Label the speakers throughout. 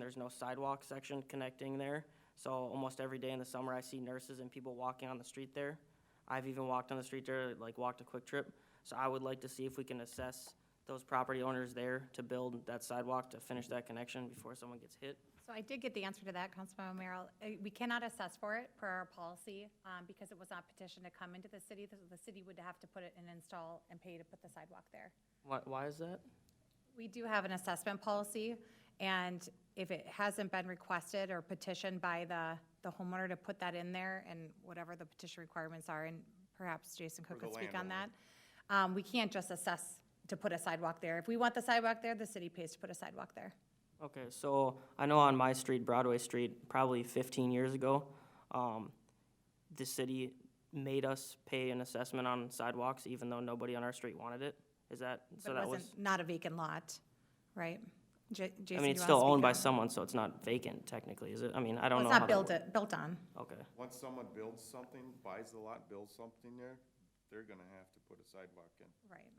Speaker 1: There's no sidewalk section connecting there. So almost every day in the summer, I see nurses and people walking on the street there. I've even walked on the street there, like walked a quick trip. So I would like to see if we can assess those property owners there to build that sidewalk to finish that connection before someone gets hit.
Speaker 2: So I did get the answer to that, Councilman Merrill. Uh, We cannot assess for it per our policy um, because it was not petitioned to come into the city. The the city would have to put it and install and pay to put the sidewalk there.
Speaker 1: Why, why is that?
Speaker 2: We do have an assessment policy, and if it hasn't been requested or petitioned by the, the homeowner to put that in there and whatever the petition requirements are, and perhaps Jason Cook could speak on that. Um, we can't just assess to put a sidewalk there. If we want the sidewalk there, the city pays to put a sidewalk there.
Speaker 1: Okay, so I know on my street, Broadway Street, probably fifteen years ago, um, the city made us pay an assessment on sidewalks even though nobody on our street wanted it. Is that,
Speaker 2: But
Speaker 1: so
Speaker 2: it
Speaker 1: that
Speaker 2: wasn't,
Speaker 1: was,
Speaker 2: not a vacant lot, right? J-
Speaker 1: I
Speaker 2: Jason, do
Speaker 1: mean,
Speaker 2: you
Speaker 1: it's
Speaker 2: wanna
Speaker 1: still
Speaker 2: speak
Speaker 1: owned by
Speaker 2: on-
Speaker 1: someone, so it's not vacant technically, is it? I mean, I
Speaker 2: Well,
Speaker 1: don't know.
Speaker 2: It's
Speaker 1: how
Speaker 2: not
Speaker 1: that
Speaker 2: built,
Speaker 1: works.
Speaker 2: built on.
Speaker 1: Okay,
Speaker 3: Once someone builds something, buys the lot, builds something there, they're gonna have to put a sidewalk in
Speaker 2: Right,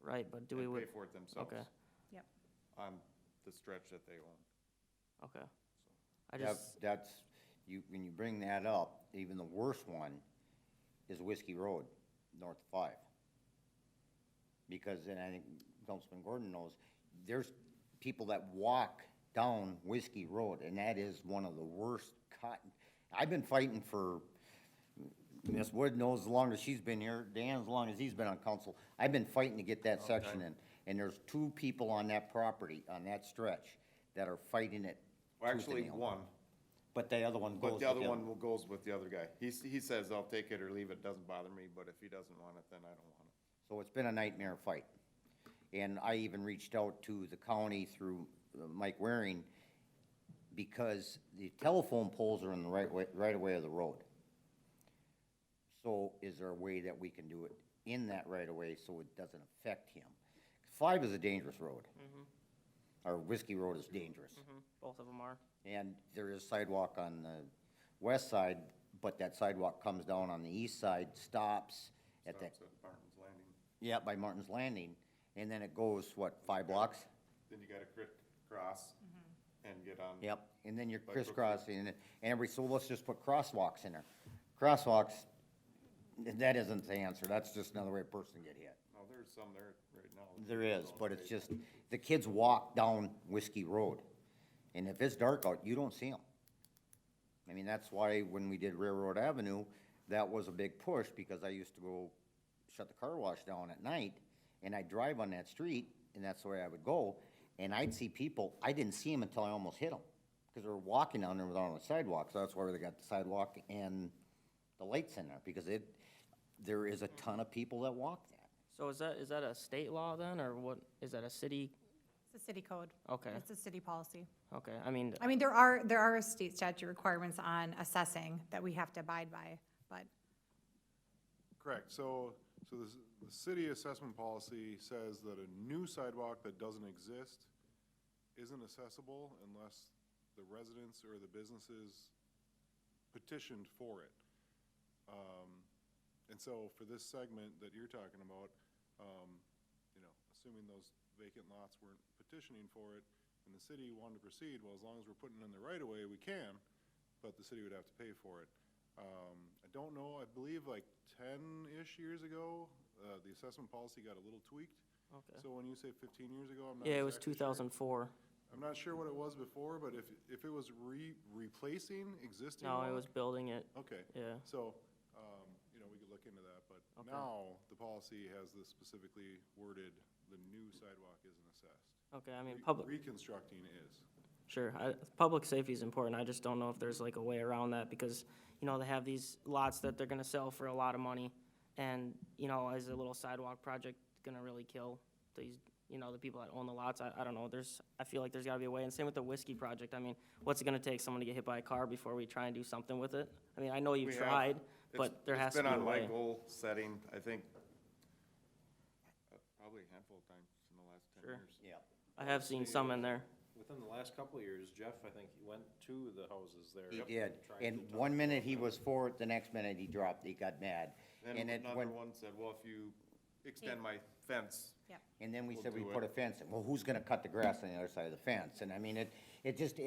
Speaker 1: right, but do we,
Speaker 3: and pay
Speaker 1: would?
Speaker 3: for it themselves
Speaker 1: okay,
Speaker 2: yep.
Speaker 3: on the stretch that they own.
Speaker 1: okay. I
Speaker 4: That-
Speaker 1: just,
Speaker 4: That's, you, when you bring that up, even the worst one is Whiskey Road, north of five. Because, and I think Councilman Gordon knows, there's people that walk down Whiskey Road, and that is one of the worst cut. I've been fighting for, Ms. Wood knows as long as she's been here, Dan as long as he's been on council, I've been fighting to get that section in. And there's two people on that property, on that stretch, that are fighting it.
Speaker 3: Well,
Speaker 4: tooth and
Speaker 3: actually,
Speaker 4: nail.
Speaker 3: one,
Speaker 4: But the other one goes.
Speaker 3: but the other
Speaker 4: with
Speaker 3: one will- goes with the other guy. He, s- he says, I'll take it or leave it, doesn't bother me, but if he doesn't want it, then I don't want it.
Speaker 4: So it's been a nightmare fight. And I even reached out to the county through uh, Mike Waring because the telephone poles are in the right way, right away of the road. So is there a way that we can do it in that right of way so it doesn't affect him? Five is a dangerous road.
Speaker 3: Mm-hmm.
Speaker 4: Or Whiskey Road is dangerous.
Speaker 1: both of them are.
Speaker 4: And there is sidewalk on the west side, but that sidewalk comes down on the east side, stops at that,
Speaker 3: Stops at Martin's Landing.
Speaker 4: yeah, by Martin's Landing, and then it goes, what, five blocks?
Speaker 3: Then you gotta crit, cross and get on.
Speaker 4: Yep, and then you're
Speaker 3: By Brookfield.
Speaker 4: crisscrossing, and every, so let's just put crosswalks in there. Crosswalks, that isn't the answer, that's just another way a person get hit.
Speaker 3: No, there's some there right now.
Speaker 4: There is, but it's just, the kids walk down Whiskey Road, and if it's dark out, you don't see them. I mean, that's why when we did Railroad Avenue, that was a big push, because I used to go shut the car wash down at night, and I'd drive on that street, and that's the way I would go, and I'd see people, I didn't see them until I almost hit them, because they were walking down there without on the sidewalk, so that's why they got the sidewalk and the lights in there, because it, there is a ton of people that walk that.
Speaker 1: So is that, is that a state law then, or what, is that a city?
Speaker 2: It's a city code.
Speaker 1: Okay.
Speaker 2: It's a city policy.
Speaker 1: Okay, I mean,
Speaker 2: I mean, there are, there are state statute requirements on assessing that we have to abide by, but
Speaker 5: Correct, so, so the, s- the city assessment policy says that a new sidewalk that doesn't exist isn't accessible unless the residents or the businesses petitioned for it. Um, and so for this segment that you're talking about, um, you know, assuming those vacant lots weren't petitioning for it, and the city wanted to proceed, well, as long as we're putting in the right of way, we can, but the city would have to pay for it. Um, I don't know, I believe like ten-ish years ago, uh, the assessment policy got a little tweaked.
Speaker 1: Okay.
Speaker 5: So when you say fifteen years ago, I'm not
Speaker 1: yeah, it was two
Speaker 5: exactly
Speaker 1: thousand
Speaker 5: sure.
Speaker 1: four.
Speaker 5: I'm not sure what it was before, but if, if it was re, replacing existing.
Speaker 1: No, it
Speaker 5: law-
Speaker 1: was building it,
Speaker 5: Okay.
Speaker 1: yeah.
Speaker 5: So, um, you know, we could look into that, but now the policy has this specifically worded, the new sidewalk isn't assessed.
Speaker 1: Okay, I mean,
Speaker 5: Re-
Speaker 1: public.
Speaker 5: Reconstructing is.
Speaker 1: Sure, I, public safety is important, I just don't know if there's like a way around that, because, you know, they have these lots that they're gonna sell for a lot of money, and, you know, is a little sidewalk project gonna really kill these, you know, the people that own the lots, I, I don't know, there's, I feel like there's gotta be a way, and same with the whiskey project, I mean, what's it gonna take someone to get hit by a car before we try and do something with it? I mean, I know you
Speaker 3: We have-
Speaker 1: tried,
Speaker 3: It's-
Speaker 1: but there has to be
Speaker 3: It's
Speaker 1: a
Speaker 3: been on my
Speaker 1: way.
Speaker 3: goal setting, I think, uh, probably a handful of times in the last ten
Speaker 1: Sure.
Speaker 3: years.
Speaker 4: Yeah.
Speaker 1: I have seen some in there,
Speaker 6: Within the last couple of years, Jeff, I think, went to the houses there.
Speaker 4: He did,
Speaker 6: tried to
Speaker 4: and
Speaker 6: talk
Speaker 4: one minute he was for it, the next minute he dropped, he got mad.
Speaker 3: Then
Speaker 4: And it
Speaker 3: another
Speaker 4: went,
Speaker 3: one said, well, if you extend my fence,
Speaker 2: yeah.
Speaker 4: and then we
Speaker 3: We'll
Speaker 4: said we
Speaker 3: do
Speaker 4: put a
Speaker 3: it.
Speaker 4: fence, in. well, who's gonna cut the grass on the other side of the fence? And I mean, it, it just,